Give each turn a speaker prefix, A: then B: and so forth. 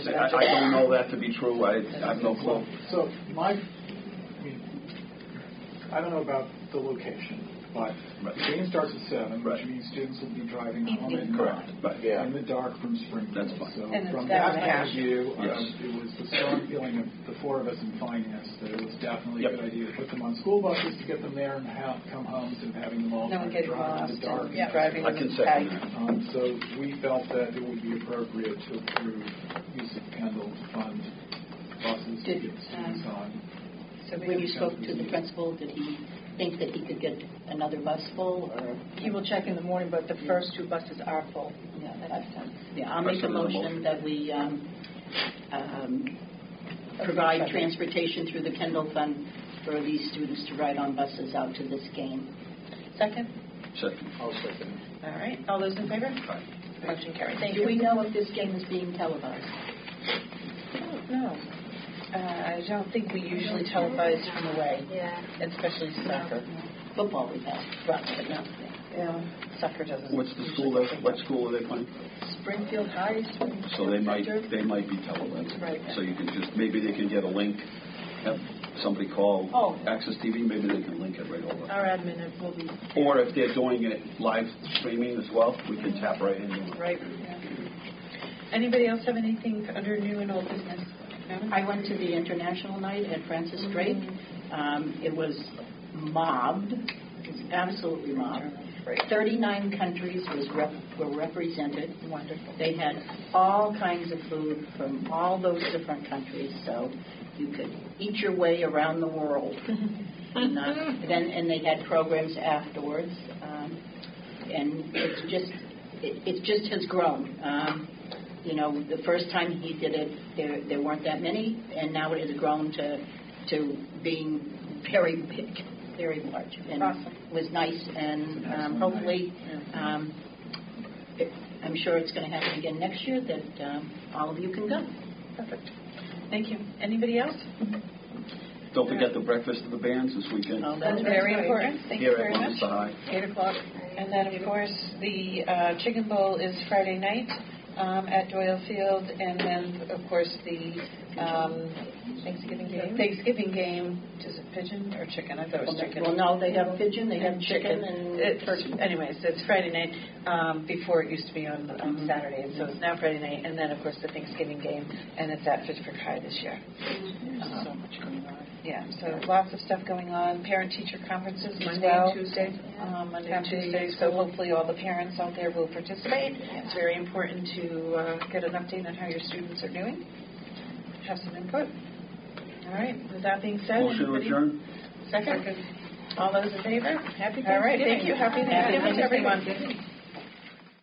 A: I I don't know that to be true, I I have no clue.
B: So my, I mean, I don't know about the location, but
A: Right.
B: the game starts at seven, which
A: Right.
B: means students will be driving home at
C: Evening.
A: Correct,
B: nine.
A: right.
D: Yeah.
B: In the dark from Springfield.
A: That's fine.
B: So
C: And it's
B: from
C: that
B: that
C: way.
B: point of view, um,
A: Yes.
B: it was the strong feeling of the four of us in finance that it was definitely a
A: Yep.
B: good idea to put them on school buses to get them there and have, come home instead of having them all
C: No
B: try
C: one
B: to
C: gets
B: drive
C: lost
B: in the dark.
C: and driving.
A: I can second that.
B: Um, So we felt that it would be appropriate to approve use of Kendall to fund buses to
E: Did,
B: get students
E: um,
B: on.
C: So
E: When
C: we-
E: you spoke to the principal, did he think that he could get another bus full, or?
C: he will check in the morning, but the first two buses are full.
E: Yeah, that's, yeah, I'll make a
A: Question on the motion.
E: motion that we um, um, provide
C: Okay.
E: transportation through the Kendall Fund for these students to ride on buses out to this game.
C: Second?
A: Second.
D: I'll second.
C: All right, all those in favor? Motion carried. Thank
E: Do we
C: you.
E: know if this game is being televised?
C: No, Uh, I don't think we usually televise from away,
F: Yeah.
C: especially soccer.
E: Football we have.
C: Right, but no, yeah, soccer doesn't.
A: What's the school, that- what school are they playing?
C: Springfield High. Springfield
A: So they might,
C: Center.
A: they might be televised.
C: Right.
A: So you can just, maybe they can get a link, have somebody call
C: Oh.
A: Access TV, maybe they can link it right over.
C: Our admin will be
A: Or if they're doing it live streaming as well, we can tap right into it.
C: right. Anybody else have anything under new and old business? No?
E: I went to the international night at Francis Drake. Um, It was mobbed, it was absolutely mobbed.
C: Right.
E: 39 countries was rep- were represented.
C: Wonderful.
E: They had all kinds of food from all those different countries, so you could eat your way around the world. and, uh, then, and they had programs afterwards, um, and it's just it, it just has grown. Um, you know, the first time he did it, there there weren't that many, and now it has grown to to being very big, very large, and
C: Awesome.
E: it was nice. And um, hopefully. Um, it- I'm sure it's going to happen again next year, that um, all of you can go.
C: Perfect. Thank you. Anybody else?
A: Don't forget the breakfast of the bands this weekend.
E: Oh,
C: That's
E: that's
C: very
E: right.
C: important. Thank you
A: Here
C: very
A: at
C: much.
A: Leominster High.
C: Eight o'clock. And then, of course, the uh, Chicken Bowl is Friday night um, at Doyle Field, and then, of course, the um,
F: Thanksgiving
C: Thanksgiving game, is it pigeon or chicken? I thought it was chicken.
E: Well, no, they have pigeon, they have
C: And
E: chicken, and
C: It's- Anyways, it's Friday night, um, before it used to be on
E: Mm-hmm.
C: on Saturday, and so it's now Friday night, and then, of course, the Thanksgiving game, and it's at Fitchburg High this year.
E: so much going on.
C: Yeah, so lots of stuff going on, parent-teacher conferences as
F: Monday
C: well.
F: and Tuesday.
C: Um, Monday and
F: After the
C: Tuesday, so hopefully all the parents out there will participate. It's very important to uh, get an update on how your students are doing, have some input. All right, with that being said.
A: Motion to
C: anybody-
A: adjourn?
C: Second. All those in favor?
F: Happy
C: All right, thank you, happy
F: Happy
C: Thanksgiving to everyone.
F: Thanksgiving.